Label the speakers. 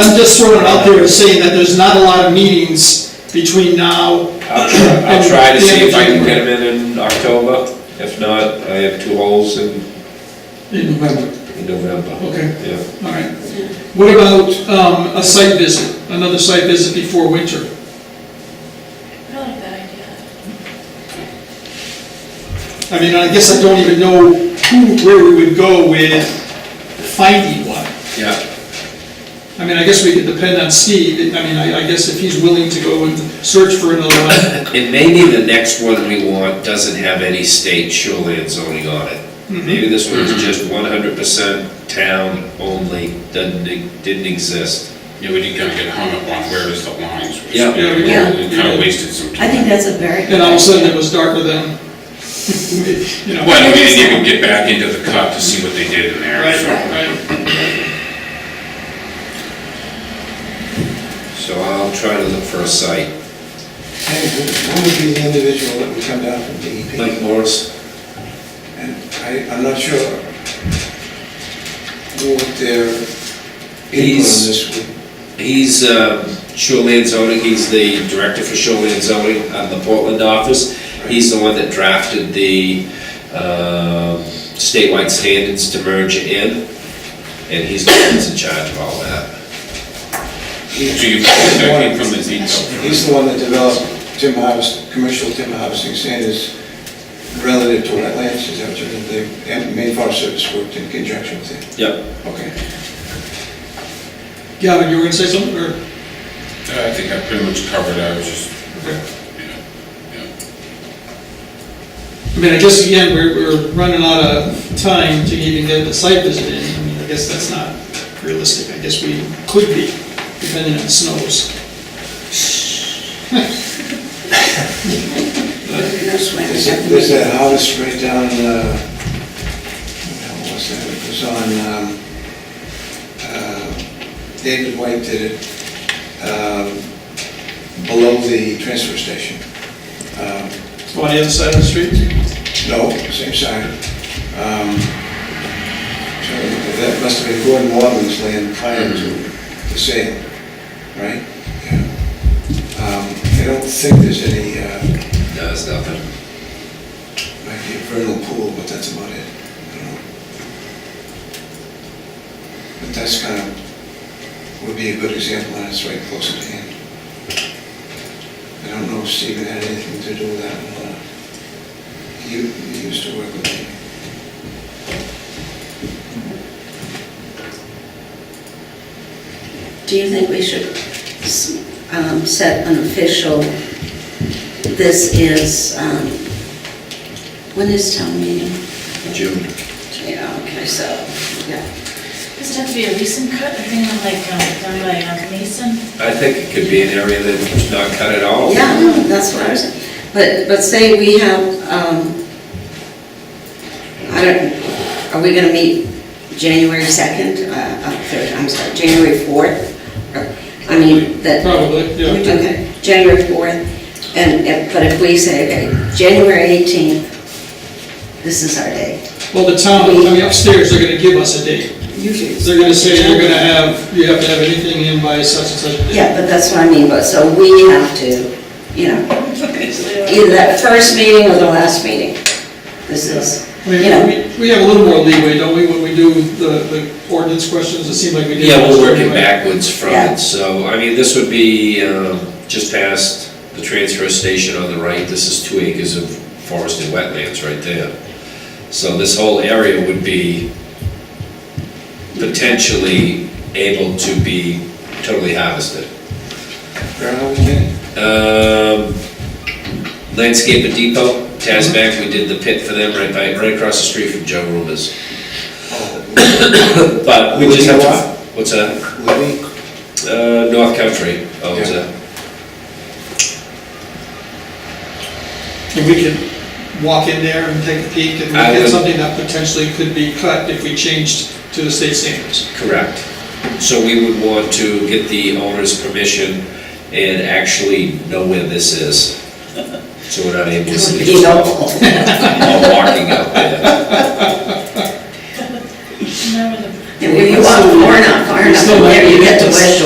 Speaker 1: I'm just throwing it out there as saying that there's not a lot of meetings between now.
Speaker 2: I'll try, I'll try to see if I can get them in in October. If not, I have two holes in,
Speaker 1: In November,
Speaker 2: in November.
Speaker 1: okay,
Speaker 2: Yeah.
Speaker 1: all right. What about, um, a site visit, another site visit before winter?
Speaker 3: I like that idea.
Speaker 1: I mean, I guess I don't even know who, where we would go with finding one.
Speaker 2: Yeah,
Speaker 1: I mean, I guess we could depend on Steve, I mean, I, I guess if he's willing to go and search for another one.
Speaker 2: and maybe the next one we want doesn't have any state shoreline zoning on it. Maybe this one is just one hundred percent town only, doesn't, didn't exist.
Speaker 4: Yeah, we did kind of get hung up on where is the lines, which,
Speaker 2: Yeah.
Speaker 4: you know,
Speaker 5: Yeah.
Speaker 4: we kind of wasted some
Speaker 5: I think
Speaker 4: time.
Speaker 5: that's a very good
Speaker 1: And all of a sudden, it
Speaker 5: idea.
Speaker 1: was darker than, you know.
Speaker 4: Well, we didn't even get back into the cut to see what they did in there,
Speaker 1: Right,
Speaker 4: so.
Speaker 1: right, right.
Speaker 2: So I'll try to look for a site,
Speaker 6: Hey, Who would be the individual that would come down from DEP?
Speaker 2: Mike Morris.
Speaker 6: And I, I'm not sure what their input on
Speaker 2: He's-
Speaker 6: this would
Speaker 2: He's um, shoreline zoning, he's the director for shoreline zoning on the Portland office. He's the one that drafted the um, statewide standards to merge in, and he's the one that's in charge of all that.
Speaker 6: be.
Speaker 4: So you, that came from the detail.
Speaker 6: He's the one that developed Tim Hobbs, commercial Tim Hobbsing standards relative to wetlands, is that what you mean? The and Maine Forest Service worked in conjunction with it.
Speaker 2: Yep.
Speaker 6: Okay.
Speaker 1: Gavin, you were gonna say something, or?
Speaker 4: I think I pretty much covered, I was just, you know,
Speaker 1: I mean, I guess again, we're, we're running out of time to even get the site visit in. I mean, I guess that's not realistic. I guess we could be, depending on the snows.
Speaker 5: No swimming,
Speaker 6: There's,
Speaker 5: nothing.
Speaker 6: there's that house right down, uh, what the hell was that? It was on, um, uh, David White did it, um, below the transfer station. Um,
Speaker 1: On the other side of the street?
Speaker 6: No, same side. Um, so That must have been Gordon Waterman's land prior to the sale, right? Yeah. Um, I don't think there's any, uh,
Speaker 2: No, it's nothing.
Speaker 6: might be a vernal pool, but that's about it. I don't know. But that's kind of, would be a good example, and it's right close at hand. I don't know if Stephen had anything to do with that or not. He he used to work with me.
Speaker 5: Do you think we should s- um, set an official, this is, um, when is town meeting?
Speaker 2: June.
Speaker 5: Yeah, okay, so, yeah.
Speaker 3: Does it have to be a recent cut, or anything like, um, done by a mason?
Speaker 2: I think it could be an area that's not cut at all.
Speaker 5: Yeah, no, that's what I was, saying. but, but say we have, um, I don't, are we gonna meet January second, uh, uh, third, I'm sorry, January fourth? I mean, that.
Speaker 1: Probably, yeah.
Speaker 5: Okay, January fourth, and, if- but if we say, okay, January eighteenth, this is our day.
Speaker 1: Well, the town, I mean, upstairs, they're gonna give us a date.
Speaker 5: Usually.
Speaker 1: They're gonna say you're gonna have, you have to have anything in by such and such a date.
Speaker 5: Yeah, but that's what I mean, but, so we have to, you know, either that first meeting or the last meeting. This is,
Speaker 1: I
Speaker 5: you know.
Speaker 1: mean, we, we have a little more leeway, don't we, when we do the, the ordinance questions? It seemed like we did.
Speaker 2: Yeah, we'll
Speaker 1: last
Speaker 2: work
Speaker 1: year,
Speaker 2: it
Speaker 1: right?
Speaker 2: backwards from
Speaker 5: Yeah.
Speaker 2: it, so, I mean, this would be um, just past the transfer station on the right, this is two acres of forested wetlands right there. So this whole area would be potentially able to be totally harvested.
Speaker 6: Brown again?
Speaker 2: Um, Landscape at Depot, Tasmac, we did the pit for them right by, right across the street from Joe Rumors.
Speaker 6: Oh,
Speaker 2: But we just have to, what's that?
Speaker 6: Libby?
Speaker 2: Uh, North Country owns
Speaker 6: Yeah.
Speaker 2: it.
Speaker 1: And we can walk in there and take a peek and
Speaker 2: I
Speaker 1: look at
Speaker 2: would-
Speaker 1: something that potentially could be cut if we changed to the state standards.
Speaker 2: Correct. So we would want to get the owner's permission and actually know where this is. So we're not able to see
Speaker 5: You know,
Speaker 2: while walking out there.
Speaker 3: Remember the
Speaker 5: and when you walk far enough, far enough from there, you get to West Shore.